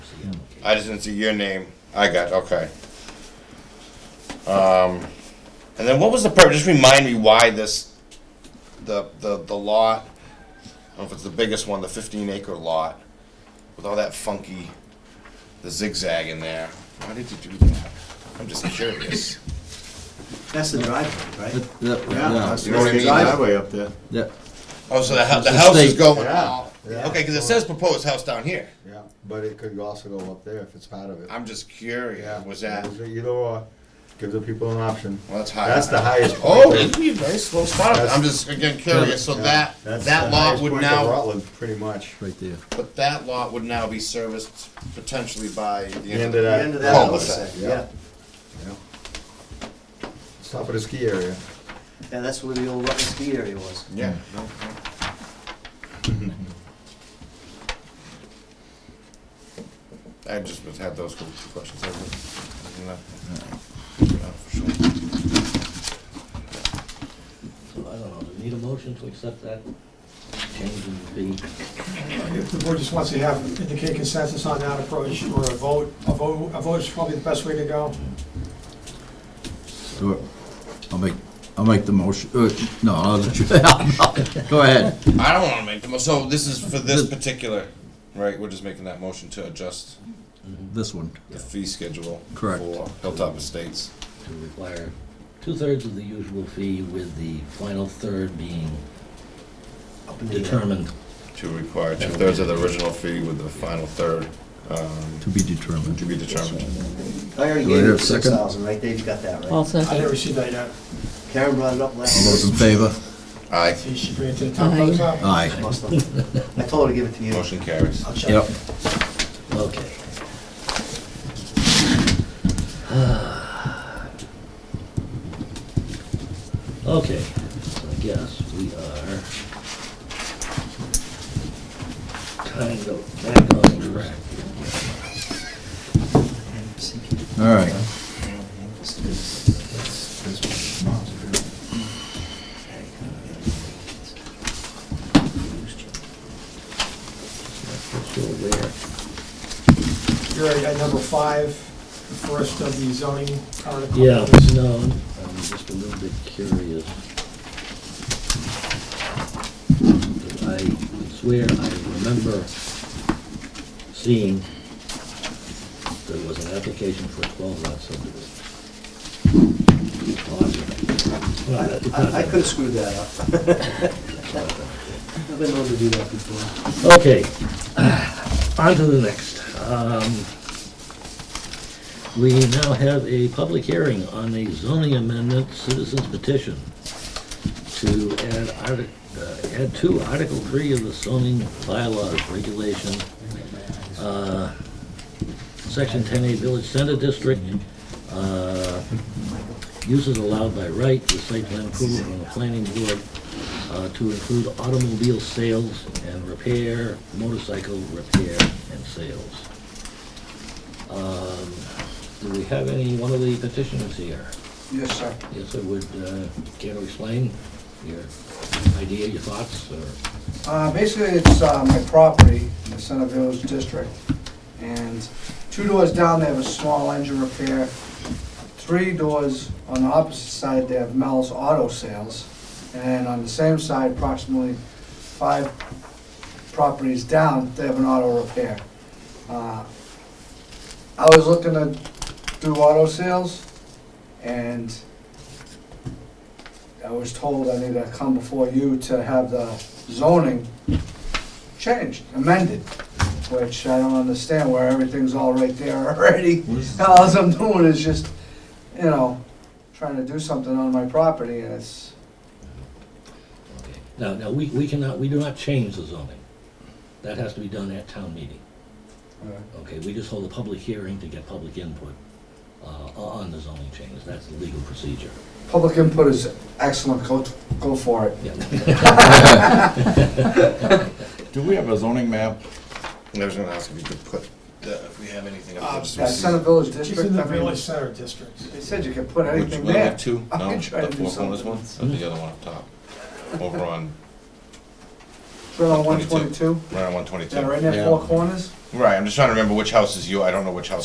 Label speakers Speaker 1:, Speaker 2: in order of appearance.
Speaker 1: I just didn't see your name. I got, okay. Um, and then what was the purpose, just remind me why this, the, the, the lot, I don't know if it's the biggest one, the fifteen acre lot, with all that funky, the zigzag in there. Why did you do that? I'm just curious.
Speaker 2: That's the driveway, right?
Speaker 3: Yeah,
Speaker 1: You know what I mean?
Speaker 2: Driveway up there.
Speaker 3: yeah,
Speaker 1: Oh, so the house, the
Speaker 3: It's a
Speaker 1: house is
Speaker 3: state.
Speaker 1: going
Speaker 4: Yeah,
Speaker 1: out.
Speaker 4: yeah.
Speaker 1: Okay, because it says proposed house down here.
Speaker 4: Yeah, but it could also go up there if it's part of it.
Speaker 1: I'm just
Speaker 4: Yeah,
Speaker 1: curious, was that,
Speaker 4: Either- Either or, give the people an option.
Speaker 1: well, that's high.
Speaker 4: That's the highest point.
Speaker 1: Oh, it'd be a nice little spot.
Speaker 4: That's-
Speaker 1: I'm just, again, curious, so
Speaker 4: Yeah,
Speaker 1: that,
Speaker 4: that's
Speaker 1: that
Speaker 4: the
Speaker 1: lot
Speaker 4: highest
Speaker 1: would
Speaker 4: point of
Speaker 1: now,
Speaker 4: Rutland, pretty much.
Speaker 3: right there.
Speaker 1: but that lot would now be serviced potentially by the end of
Speaker 2: The
Speaker 1: the.
Speaker 2: end of that
Speaker 1: Cul-de-sac,
Speaker 2: cul-de-sac,
Speaker 4: yeah.
Speaker 2: yeah.
Speaker 4: yeah. It's Top of the ski area.
Speaker 2: Yeah, that's where the old rubber ski area was.
Speaker 1: Yeah. no, no.
Speaker 4: Mm-hmm.
Speaker 1: I just was- had those couple of questions. I didn't- I didn't know. No, for sure.
Speaker 5: So I don't know, do we need a motion to accept that change in the fee?
Speaker 6: If the board just wants to have, indicate consensus on that approach, or a vote, a vote, a vote is probably the best way to go.
Speaker 3: Do it. I'll make, I'll make the motion, uh, no, I'll let you, go ahead.
Speaker 1: I don't wanna make the, mo- so this is for this particular, right, we're just making that motion to adjust
Speaker 3: This one,
Speaker 1: the fee schedule.
Speaker 3: Correct.
Speaker 1: For Hilltop Estates.
Speaker 5: To require two-thirds of the usual fee with the final third being
Speaker 2: Up in the air.
Speaker 5: determined.
Speaker 1: To require two-thirds of the original fee with the final third
Speaker 3: to be
Speaker 1: to
Speaker 3: determined.
Speaker 1: be determined.
Speaker 2: I already
Speaker 3: Do
Speaker 2: gave
Speaker 3: I
Speaker 2: Oh, you
Speaker 3: have a
Speaker 2: six
Speaker 3: second?
Speaker 2: thousand, right? Dave's got that, right?
Speaker 7: I'll
Speaker 6: I
Speaker 7: second.
Speaker 6: didn't receive that yet.
Speaker 2: Karen brought it up
Speaker 3: All those in
Speaker 2: last.
Speaker 3: favor?
Speaker 1: Aye.
Speaker 6: See, she bring it to the top of the top.
Speaker 3: Aye.
Speaker 2: Must have. I told her to give it to you.
Speaker 1: Motion carries.
Speaker 2: I'll check.
Speaker 3: Yep.
Speaker 5: Okay. Okay, so I guess we are kind of back on track.
Speaker 3: All right.
Speaker 5: Still there.
Speaker 6: You're already at number five, the first of the zoning article.
Speaker 5: Yeah, no, I'm just a little bit curious. I swear I remember seeing there was an application for a twelve lot subdivision. Well, it's not
Speaker 2: I, I
Speaker 5: that
Speaker 2: could have screwed that up. I've been known to do that before.
Speaker 5: Okay, on to the next. Um, We now have a public hearing on a zoning amendment citizens petition to add artic, uh, add to Article Three of the zoning bylaws regulation, uh, Section ten A Village Center District, uh, uses allowed by right with site plan approval from the planning board uh, to include automobile sales and repair, motorcycle repair and sales. Um, Do we have any, one of the petitioners here?
Speaker 2: Yes, sir.
Speaker 5: Yes, I would, uh, care to explain your idea, your thoughts, or,
Speaker 8: Uh, Basically, it's uh, my property in the Center Village District, and two doors down, they have a small engine repair. Three doors on the opposite side, they have Mel's Auto Sales, and on the same side, approximately five properties down, they have an auto repair. Uh, I was looking to do auto sales, and I was told I need to come before you to have the zoning changed, amended, which I don't understand where everything's all right there already. All I'm doing is just, you know, trying to do something on my property and it's,
Speaker 5: okay. Now, now, we, we cannot, we do not change the zoning. That has to be done at town meeting,
Speaker 8: uh,
Speaker 5: okay? We just hold a public hearing to get public input, uh, on the zoning changes. That's the legal procedure.
Speaker 8: public input is excellent, go, go for it.
Speaker 5: Yeah.
Speaker 3: Do we have a zoning map?
Speaker 1: I was gonna ask if you could put, the- if we have anything
Speaker 6: Uh,
Speaker 1: up
Speaker 8: Yeah,
Speaker 1: there.
Speaker 8: Center Village
Speaker 6: She's
Speaker 8: District,
Speaker 6: in the
Speaker 8: I mean,
Speaker 6: village center district.
Speaker 8: they said you could put
Speaker 1: Which
Speaker 8: anything
Speaker 1: one,
Speaker 8: there.
Speaker 1: have two?
Speaker 8: I
Speaker 1: No,
Speaker 8: can try to
Speaker 1: the
Speaker 8: do
Speaker 1: fourth one is one,
Speaker 8: something.
Speaker 1: or the other one up top? Over on,
Speaker 8: Right on one
Speaker 1: 22.
Speaker 8: twenty-two,
Speaker 1: right on one twenty-two.
Speaker 8: yeah, right near Four Corners,
Speaker 1: Right, I'm just trying to remember which house is you, I don't know which house